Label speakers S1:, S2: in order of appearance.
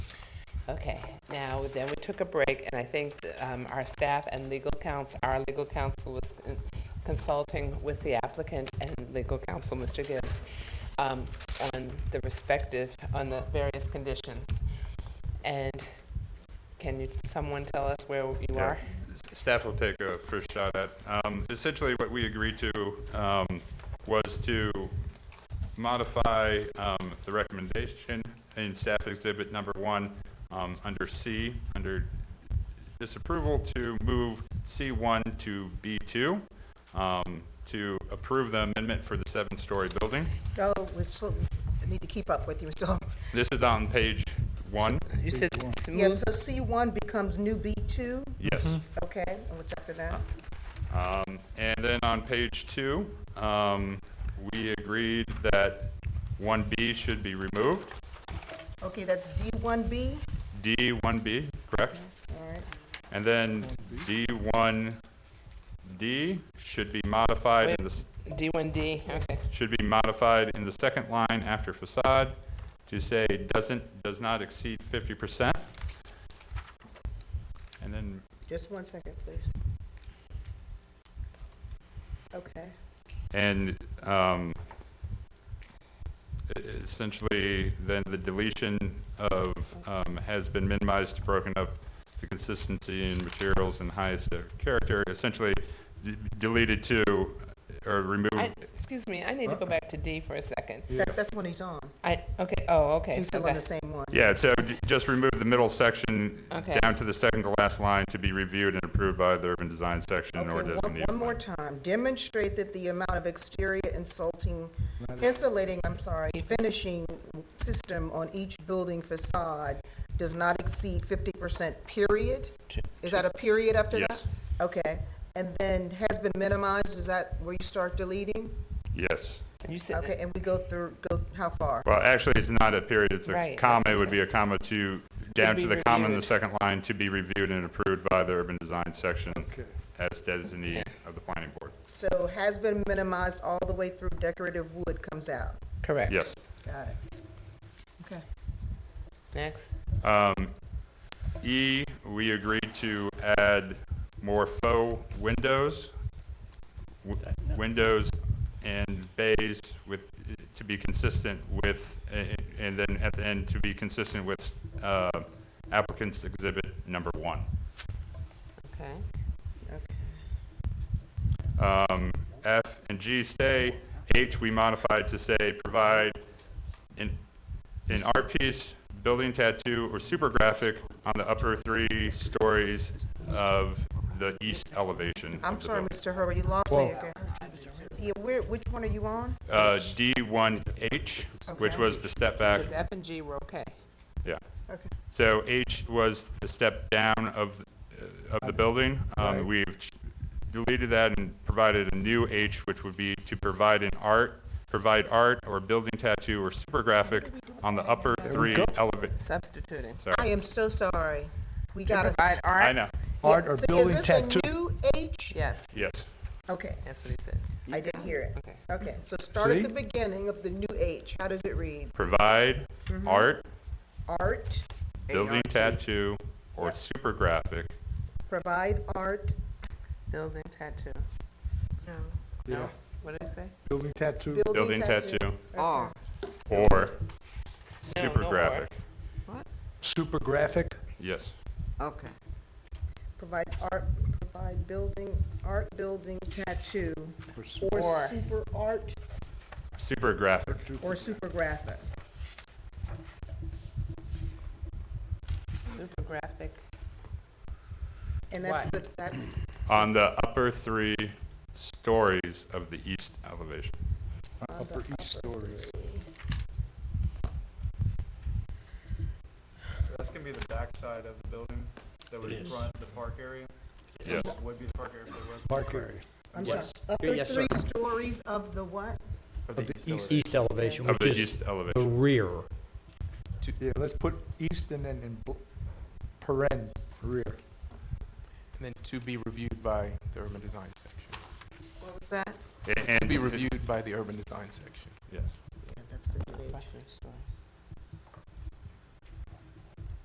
S1: Okay, now, then we took a break, and I think um, our staff and legal counsel, our legal counsel was consulting with the applicant and legal counsel, Mr. Gibbs, um, on the respective, on the various conditions. And can you, someone tell us where you
S2: Yeah.
S1: are?
S2: Staff will take a first shot at. Um, Essentially, what we agreed to um, was to modify um, the recommendation in staff exhibit number one, um, under C, under disapproval, to move C1 to B2, um, to approve the amendment for the seven-story building.
S3: No, Oh, we still need to keep up with you, so.
S2: This is on page one.
S1: You said
S3: Yeah,
S1: smooth,
S3: so C1 becomes new B2,
S2: Yes.
S3: okay, and what's after that?
S2: Um, And then on page two, um, we agreed that 1B should be removed,
S3: Okay, that's D1B,
S2: D, 1B, correct?
S3: all right,
S2: And then D1D should be modified, in the s-
S1: D1D, okay.
S2: should be modified in the second line after facade to say doesn't, does not exceed 50%. And then,
S3: just one second, please. Okay,
S2: and um, e- essentially, then the deletion of, um, has been minimized to broken up the consistency in materials and highest of character, essentially d- deleted to, uh, or
S1: I,
S2: removed.
S1: excuse me, I need to go back to D for a second.
S3: that, that's when he's on,
S1: I, okay, oh, okay.
S3: he's still
S1: okay.
S3: on the same one.
S2: Yeah, so j- just remove the middle section
S1: Okay.
S2: down to the second to last line to be reviewed and approved by the urban design section or
S3: Okay, one,
S2: designated.
S3: one more
S2: plan.
S3: time, demonstrate that the amount of exterior insulting, insulating, I'm sorry, finishing system on each building facade does not exceed fifty percent, period? Is that a period after that?
S2: Yes.
S3: Okay, and then has been minimized, is that where you start deleting?
S2: Yes.
S1: You said,
S3: Okay, and we go through, go, how far?
S2: Well, actually, it's not a period, it's
S1: Right, that's
S2: a comma,
S1: what
S2: it
S1: I'm
S2: would be a comma to, down
S1: be
S2: to the comma in the
S1: reviewed.
S2: second line, to be reviewed and approved by the urban design section as designee of the planning board.
S3: So has been minimized all the way through decorative wood comes out.
S1: correct.
S2: Yes.
S3: Got it. Okay.
S1: Next,
S2: Um, E, we agreed to add more faux windows, w- windows and bays with, to be consistent with, a- and then at the end, to be consistent with uh, applicant's exhibit number one.
S1: okay.
S2: Um, F and G stay. H, we modified to say, provide an, an art piece, building tattoo, or super graphic on the upper three stories of the east elevation
S3: I'm
S2: of the
S3: sorry,
S2: building.
S3: Mr. Herbert, you lost me again. Yeah, where, which one are you on?
S2: Uh, D1H, which
S3: Okay.
S2: was the step back,
S1: Because F and G were okay.
S2: yeah.
S3: Okay.
S2: So H was the step down of, uh, of the building. Um, We've ch- deleted that and provided a new H, which would be to provide an art, provide art or building tattoo or super graphic on the upper three elevate.
S1: Substituting.
S3: I am so sorry. We
S1: To
S3: got to.
S1: provide
S2: I
S1: art?
S2: know,
S4: Art or building
S3: Is
S4: tattoo.
S3: this a new H?
S1: Yes,
S2: yes.
S3: Okay,
S1: that's what he said.
S3: I didn't hear it.
S1: Okay.
S3: Okay, so start at
S4: See?
S3: the beginning of the new H. How does it read?
S2: Provide
S1: Mm-hmm.
S2: art,
S3: Art,
S2: building tattoo, or super graphic.
S3: provide art,
S1: Building tattoo. No. No? What did he say?
S4: Building tattoo.
S3: building tattoo.
S1: Oh,
S5: R,
S2: Or
S1: No,
S2: super
S1: no or.
S2: graphic.
S4: Super graphic.
S2: Yes,
S5: okay.
S3: Provide art, provide building, art building tattoo, or
S1: Or.
S3: super art,
S2: super graphic.
S3: or super graphic.
S1: Super graphic.
S3: And that's
S1: What?
S3: the, that,
S2: On the upper three stories of the east elevation.
S4: Upper east stories.
S6: That's gonna be the backside of the building that would front the park area?
S2: Yes.
S6: Would be the park area if there was.
S4: Park area.
S3: I'm sorry, upper
S7: Yes, sir.
S3: three stories of the what?
S7: Of the east elevation,
S2: Of
S7: which
S2: the
S7: is
S2: east elevation.
S7: the rear.
S4: Yeah, let's put east and then in bl- paren, rear.
S8: And then to be reviewed by the urban design section.
S5: What was that?
S2: A-
S8: To be
S2: And,
S8: reviewed by the urban design section.
S2: yes.
S3: Yeah, that's the new H.
S1: Luxury stores.